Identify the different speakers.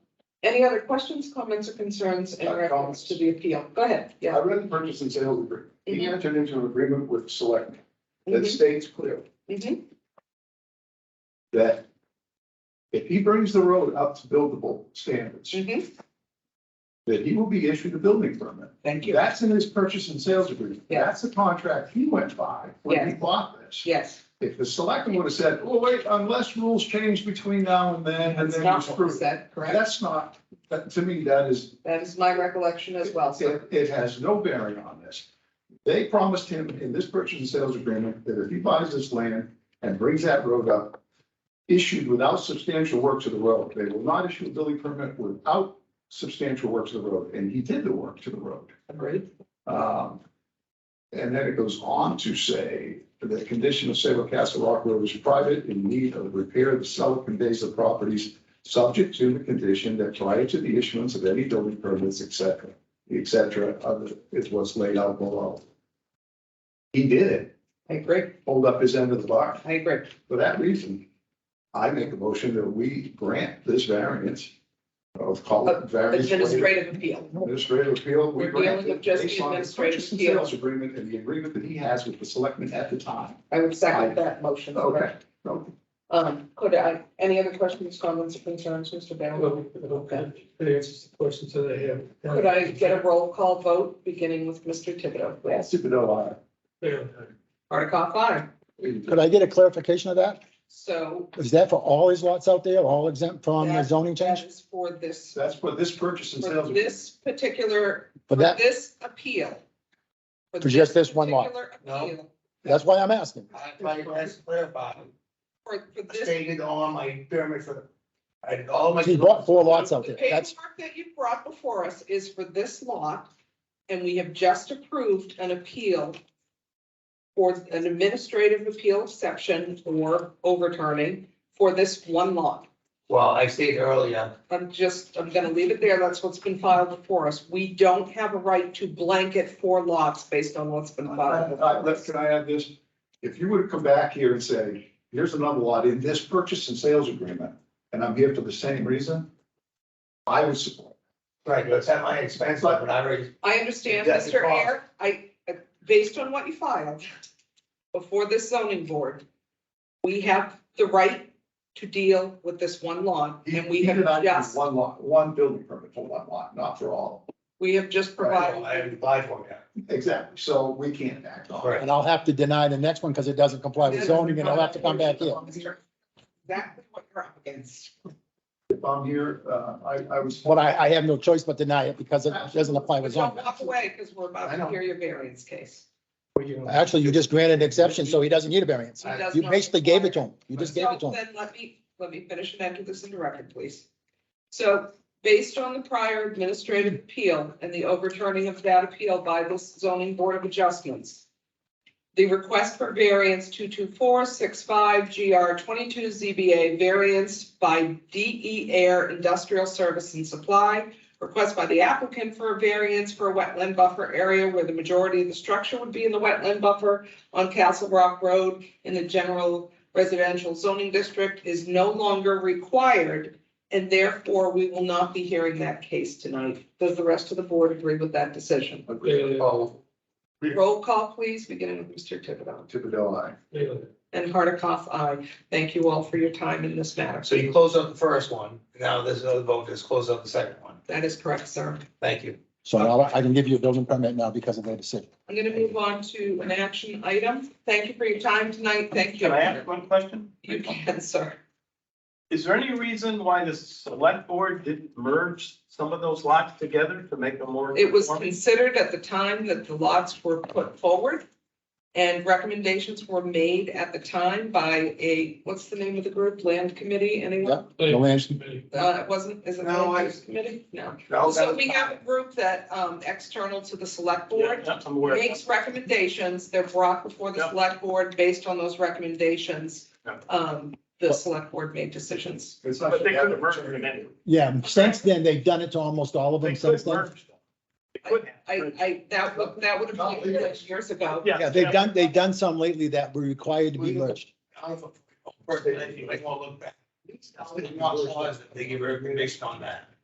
Speaker 1: Any other questions, comments or concerns in
Speaker 2: Uh,
Speaker 1: reference
Speaker 2: comments.
Speaker 1: to the appeal? Go ahead,
Speaker 2: I
Speaker 1: yeah.
Speaker 2: read the purchase and sales agreement. He
Speaker 1: Mhm.
Speaker 2: entered into an agreement with Select that
Speaker 1: Mhm,
Speaker 2: states clear
Speaker 1: mhm,
Speaker 2: that if he brings the road up to buildable standards,
Speaker 1: mhm. Mm-hmm.
Speaker 2: that he will be issued a building permit.
Speaker 1: Thank you.
Speaker 2: That's in his purchase and sales agreement.
Speaker 1: Yeah.
Speaker 2: That's the contract he went by when he bought this.
Speaker 1: Yes,
Speaker 2: If the selectmen would have said, oh, wait, unless rules change between now and then, and
Speaker 1: that's
Speaker 2: then you're
Speaker 1: not what was
Speaker 2: screwed.
Speaker 1: said, correct?
Speaker 2: That's not, that, to me, that is,
Speaker 1: That is my recollection as well, sir.
Speaker 2: it, it has no bearing on this. They promised him in this purchase and sales agreement that if he buys this land and brings that road up, issued without substantial work to the road, they will not issue a building permit without substantial work to the road, and he did the work to the road.
Speaker 1: Agreed.
Speaker 2: Um, and then it goes on to say, the condition of Sabre Castle Rock Road is private in need of repair. The seller conveys the properties subject to the condition that prior to the issuance of any building permits, et cetera, et cetera, other, is what's laid out below. He did it,
Speaker 1: I agree,
Speaker 2: hold up his end of the bar.
Speaker 1: I agree.
Speaker 2: For that reason, I make a motion that we grant this variance of call it variance. waiver.
Speaker 1: Administrative appeal.
Speaker 2: Administrative appeal. we
Speaker 1: We're dealing
Speaker 2: granted
Speaker 1: with just the
Speaker 2: based on
Speaker 1: administrative
Speaker 2: purchase and
Speaker 1: appeal.
Speaker 2: Sales agreement and the agreement that he has with the selectmen at the time.
Speaker 1: I would second that motion.
Speaker 2: Okay.
Speaker 1: Um, could I, any other questions, comments or concerns, Mr. Baylor? Okay.
Speaker 3: That answers the questions that I have.
Speaker 2: uh,
Speaker 1: Could I get a roll call vote, beginning with Mr. Thibodeau, please?
Speaker 2: Stupid O
Speaker 3: Yeah.
Speaker 1: Hardikoff, aye.
Speaker 2: I.
Speaker 4: Could I get a clarification of that?
Speaker 1: So
Speaker 4: Is that for all his lots out there, all exempt from the
Speaker 1: That-
Speaker 4: zoning
Speaker 1: that
Speaker 4: change?
Speaker 1: is for this,
Speaker 2: That's for this purchase and
Speaker 1: for
Speaker 2: sales. agreement.
Speaker 1: this particular, for
Speaker 4: For that,
Speaker 1: this appeal.
Speaker 4: For just this one lot?
Speaker 1: particular
Speaker 5: No.
Speaker 1: appeal,
Speaker 4: that's why I'm asking.
Speaker 5: I, I, that's clarified,
Speaker 1: For, for this,
Speaker 5: stated on my permit for, I did all my.
Speaker 4: He bought four lots out
Speaker 1: the
Speaker 4: there. That's,
Speaker 1: paperwork that you brought before us is for this lot. And we have just approved an appeal for an administrative appeal exception or overturning for this one lot.
Speaker 5: Well, I stated earlier,
Speaker 1: I'm just, I'm gonna leave it there. That's what's been filed before us. We don't have a right to blanket four lots based on what's been filed.
Speaker 2: I- I- let's- Can I add this? If you would come back here and say, here's another lot in this purchase and sales agreement, and I'm here for the same reason, I would support.
Speaker 5: right, it's at my expense, but I already,
Speaker 1: I understand,
Speaker 5: That's the
Speaker 1: Mr.
Speaker 5: cost.
Speaker 1: Air, I, uh, based on what you filed before this zoning board, we have the right to deal with this one lot,
Speaker 2: He-
Speaker 1: and we
Speaker 2: he
Speaker 1: have
Speaker 2: did not do
Speaker 1: just,
Speaker 2: One lot, one building permit for one lot, not for all.
Speaker 1: we have just
Speaker 5: I
Speaker 1: provided.
Speaker 5: haven't applied for it yet.
Speaker 2: Exactly. So we can't act on it.
Speaker 5: Right.
Speaker 4: and I'll have to deny the next one because it doesn't comply with zoning and I'll have to come back here.
Speaker 1: Exactly what you're up against.
Speaker 2: If I'm here, uh, I, I was.
Speaker 4: But I, I have no choice but deny it because it doesn't apply
Speaker 1: But
Speaker 4: with
Speaker 1: don't
Speaker 4: zoning.
Speaker 1: walk away, because we're about
Speaker 2: I know.
Speaker 1: to hear your variance case.
Speaker 4: Actually, you just granted an exception, so he doesn't need a variance.
Speaker 1: He does
Speaker 4: You
Speaker 1: not
Speaker 4: basically gave it to
Speaker 1: require-
Speaker 4: him. You just gave it to
Speaker 1: So
Speaker 4: him.
Speaker 1: Then let me, let me finish and enter this in the record, please. So based on the prior administrative appeal and the overturning of that appeal by the zoning board of adjustments, the request for variance two two four six five GR twenty-two ZBA variance by DE Air Industrial Service and Supply. Request by the applicant for a variance for a wetland buffer area where the majority of the structure would be in the wetland buffer on Castle Rock Road in the general residential zoning district is no longer required. And therefore, we will not be hearing that case tonight. Does the rest of the board agree with that decision?
Speaker 5: So,
Speaker 1: Roll call, please, beginning with Mr. Thibodeau
Speaker 2: Thibodeau, aye.
Speaker 1: and Hardikoff, I Thank you all for your time in this matter.
Speaker 5: so you close up the first one, now there's another vote, just close up the second one,
Speaker 1: That is correct, sir.
Speaker 5: thank you.
Speaker 4: So now I can give you a building permit now because of their decision.
Speaker 1: I'm gonna move on to an action item. Thank you for your time tonight. Thank you.
Speaker 6: Can I ask one question?
Speaker 1: You can, sir.
Speaker 6: Is there any reason why the select board didn't merge some of those lots together to make them more?
Speaker 1: It was
Speaker 6: conforming?
Speaker 1: considered at the time that the lots were put forward. And recommendations were made at the time by a, what's the name of the group? Land Committee, anyone?
Speaker 4: The land-
Speaker 1: Uh, it wasn't, is it
Speaker 5: No,
Speaker 1: Land
Speaker 5: I-
Speaker 1: Use Committee? No.
Speaker 5: No,
Speaker 1: So
Speaker 5: that
Speaker 1: we
Speaker 5: was-
Speaker 1: have a group that, um, external to the select
Speaker 6: Yeah,
Speaker 1: board,
Speaker 6: yeah, I'm aware.
Speaker 1: makes recommendations. They're brought before the
Speaker 6: Yeah.
Speaker 1: select board based on those recommendations.
Speaker 6: Yeah.
Speaker 1: Um, the select board made decisions.
Speaker 2: It's not-
Speaker 6: But they could have merged them anyway.
Speaker 4: Yeah, since then, they've done it to almost all of
Speaker 6: They
Speaker 4: them
Speaker 6: could
Speaker 4: since then.
Speaker 6: merge them. They could
Speaker 1: I,
Speaker 6: have.
Speaker 1: I, that would, that would have been years ago.
Speaker 4: Yeah, they've done, they've done some lately that were required to be merged.
Speaker 5: I don't- First, they, they won't look back. It's not laws that They give a recommendation on that.